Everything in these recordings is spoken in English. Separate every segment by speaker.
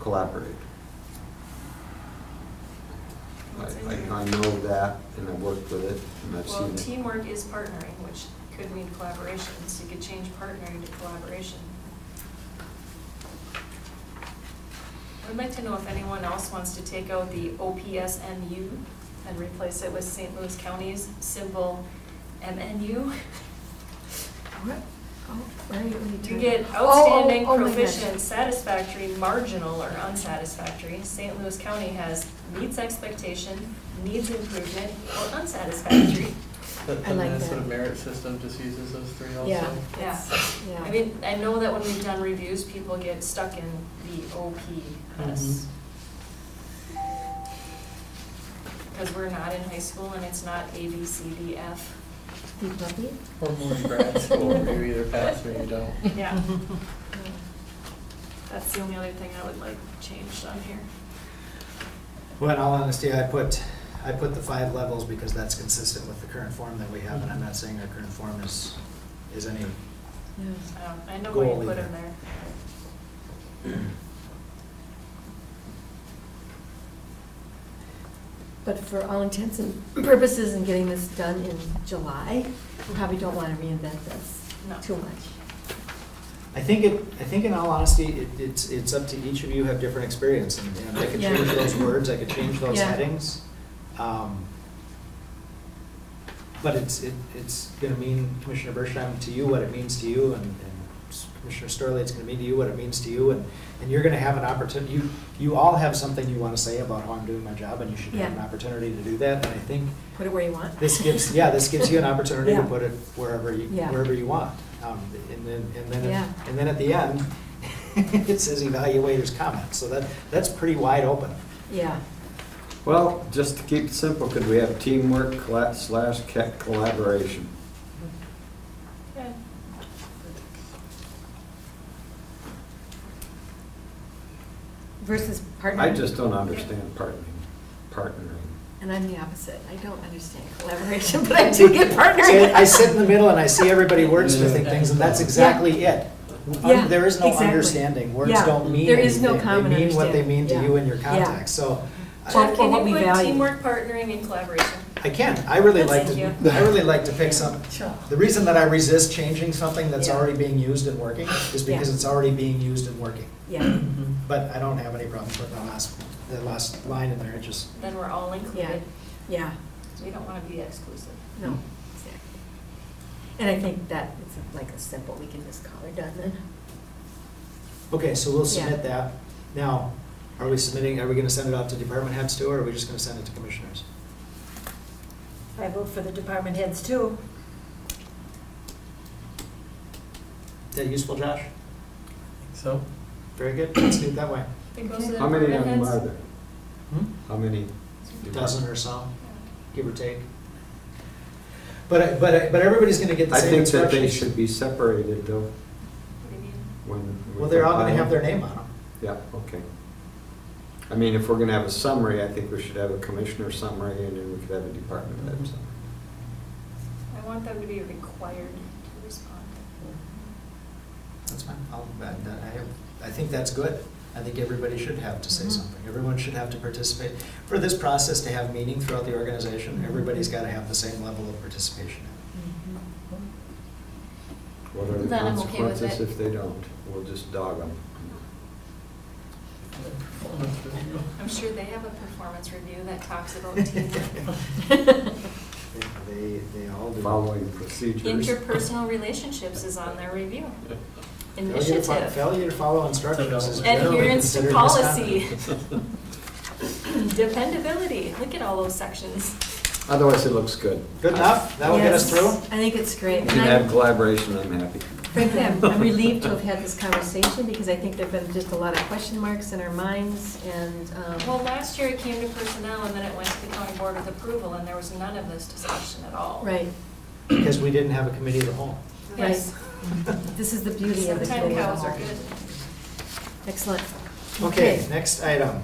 Speaker 1: collaborate. I,
Speaker 2: What's in there?
Speaker 1: I I know that, and I've worked with it, and I've seen
Speaker 2: Well,
Speaker 1: it.
Speaker 2: teamwork is partnering, which could mean collaboration, so you could change partnering to collaboration. I'd like to know if anyone else wants to take out the OPSMU and replace it with St. Louis County's symbol MNU.
Speaker 3: What? Oh, where are you? what are you
Speaker 2: To
Speaker 3: talking-
Speaker 2: get
Speaker 3: Oh, oh,
Speaker 2: outstanding,
Speaker 3: oh my gosh.
Speaker 2: proficient, satisfactory, marginal, or unsatisfactory, St. Louis County has meets expectation, needs improvement, or unsatisfactory.
Speaker 4: But
Speaker 3: I
Speaker 4: the
Speaker 3: like that.
Speaker 4: Minnesota merit system just uses those three also.
Speaker 3: Yeah.
Speaker 2: Yeah.
Speaker 3: Yeah.
Speaker 2: I mean, I know that when we've done reviews, people get stuck in the OPS.
Speaker 3: Mm-hmm.
Speaker 2: Because we're not in high school and it's not A, B, C, D, F.
Speaker 3: Be puppy?
Speaker 4: Or more in grad school, where you either pass or you don't.
Speaker 2: Yeah,
Speaker 3: Yeah.
Speaker 2: that's the only other thing I would like changed on here.
Speaker 5: Well, in all honesty, I put, I put the five levels because that's consistent with the current form that we have, and I'm not saying our current form is, is any,
Speaker 3: Yeah.
Speaker 2: Um, I know what
Speaker 5: Goal
Speaker 2: you put in
Speaker 5: either.
Speaker 2: there.
Speaker 3: But for all intents and purposes in getting this done in July, we probably don't want to reinvent this
Speaker 2: No.
Speaker 3: too much.
Speaker 5: I think it, I think in all honesty, it, it's, it's up to each of you have different experience, and, and I could
Speaker 3: Yeah.
Speaker 5: change those words, I could change those
Speaker 3: Yeah.
Speaker 5: headings. um, But it's, it, it's gonna mean, Commissioner Bershon, to you what it means to you, and, and Commissioner Starley, it's gonna mean to you what it means to you, and, and you're gonna have an opportunity, you, you all have something you wanna say about how I'm doing my job, and you should have an
Speaker 3: Yeah.
Speaker 5: opportunity to do that, and I think
Speaker 3: Put it where you want.
Speaker 5: this gives, yeah, this gives you an opportunity to
Speaker 3: Yeah.
Speaker 5: put it wherever you,
Speaker 3: Yeah.
Speaker 5: wherever you want. Um, And then, and then,
Speaker 3: Yeah.
Speaker 5: and then at the end, it says evaluators comment, so that, that's pretty wide open.
Speaker 3: Yeah,
Speaker 1: Well, just to keep it simple, could we have teamwork colla- slash ca- collaboration?
Speaker 2: Yeah.
Speaker 3: versus partnering.
Speaker 1: I just don't understand partnering, partnering.
Speaker 3: And I'm the opposite. I don't understand collaboration, but I do get
Speaker 5: See,
Speaker 3: partnering.
Speaker 5: I sit in the middle and I see everybody wordsmithing
Speaker 4: Yeah.
Speaker 5: things, and that's exactly it.
Speaker 3: Yeah,
Speaker 5: There is no
Speaker 3: exactly.
Speaker 5: understanding, words
Speaker 3: Yeah.
Speaker 5: don't mean anything.
Speaker 3: There is no common
Speaker 5: They mean what they
Speaker 3: understanding.
Speaker 5: mean to you
Speaker 3: Yeah.
Speaker 5: in your
Speaker 3: Yeah.
Speaker 5: context, so. I-
Speaker 3: Well,
Speaker 2: Jeff,
Speaker 3: for what
Speaker 2: can
Speaker 3: we
Speaker 2: you put
Speaker 3: value.
Speaker 2: teamwork, partnering, and collaboration?
Speaker 5: I can, I really like
Speaker 2: Thank
Speaker 5: to,
Speaker 2: you.
Speaker 5: I really like to pick some,
Speaker 3: Sure.
Speaker 5: the reason that I resist changing something that's
Speaker 3: Yeah.
Speaker 5: already being used and working is
Speaker 3: Yeah.
Speaker 5: because it's already being used and working.
Speaker 3: Yeah,
Speaker 5: But I don't have any problem putting the last, the last line in there, it just,
Speaker 2: Then we're all
Speaker 3: yeah,
Speaker 2: included.
Speaker 3: yeah,
Speaker 2: We don't want to be exclusive.
Speaker 3: no, exactly. And I think that it's like a simple, we can just call her done then.
Speaker 5: okay, so we'll
Speaker 3: Yeah.
Speaker 5: submit that. Now, are we submitting, are we gonna send it out to department heads too, or are we just gonna send it to commissioners?
Speaker 6: I vote for the department heads too.
Speaker 5: Is that useful, Josh?
Speaker 4: So,
Speaker 5: Very good, let's do it that way.
Speaker 2: It goes to the
Speaker 1: How many of them
Speaker 2: department
Speaker 1: are
Speaker 2: heads.
Speaker 1: there?
Speaker 5: Hmm?
Speaker 1: How many?
Speaker 5: Dozen or so, give or take. But, I- but, I- but everybody's gonna get the
Speaker 1: I
Speaker 5: same
Speaker 1: think
Speaker 5: instructions.
Speaker 1: that they should be separated though,
Speaker 2: What do you mean?
Speaker 1: when. we
Speaker 5: Well, they're all gonna
Speaker 1: compile.
Speaker 5: have their name on them.
Speaker 1: Yeah, okay. I mean, if we're gonna have a summary, I think we should have a commissioner summary and then we could have a department head
Speaker 3: Mhm.
Speaker 1: summary.
Speaker 2: I want them to be required to respond.
Speaker 5: That's fine, I'll, I, I- I think that's good. I think everybody should have to say
Speaker 3: Mhm.
Speaker 5: something. Everyone should have to participate. For this process to have meaning throughout the organization, everybody's gotta have the same level of participation. Mm-hmm.
Speaker 1: What are the
Speaker 2: Then I'm okay with
Speaker 1: consequences
Speaker 2: it.
Speaker 1: if they don't? We'll just dog them.
Speaker 4: performance review.
Speaker 2: I'm sure they have a performance review that talks about teamwork.
Speaker 5: They, they all do.
Speaker 1: Following procedures.
Speaker 2: Interpersonal relationships is on their review.
Speaker 5: Failure to fo-
Speaker 2: Initiative,
Speaker 5: Failure to follow instructions is generally
Speaker 2: adherence to
Speaker 5: considered
Speaker 2: policy,
Speaker 5: misconduct.
Speaker 2: dependability. Look at all those sections.
Speaker 1: Otherwise, it looks good.
Speaker 5: Good enough, that'll get us
Speaker 3: Yes,
Speaker 5: through?
Speaker 3: I think it's great.
Speaker 1: If
Speaker 3: And
Speaker 1: you can
Speaker 3: I'm-
Speaker 1: have collaboration, I'm happy.
Speaker 3: Frankly, I'm I'm relieved to have had this conversation because I think there've been just a lot of question marks in our minds and, um,
Speaker 2: Well, last year it came to personnel and then it went to the county board with approval and there was none of this discussion at all.
Speaker 3: right.
Speaker 5: Because we didn't have a committee of the whole.
Speaker 2: Yes.
Speaker 3: This is the beauty of the
Speaker 2: Sometime
Speaker 3: committee of the
Speaker 2: cows are
Speaker 3: whole.
Speaker 2: good.
Speaker 3: Excellent.
Speaker 5: Okay, next item.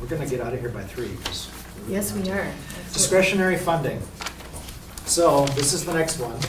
Speaker 5: We're gonna get out of here by three, 'cause we're-
Speaker 3: Yes, we are.
Speaker 5: Discretionary funding. So this is the next one.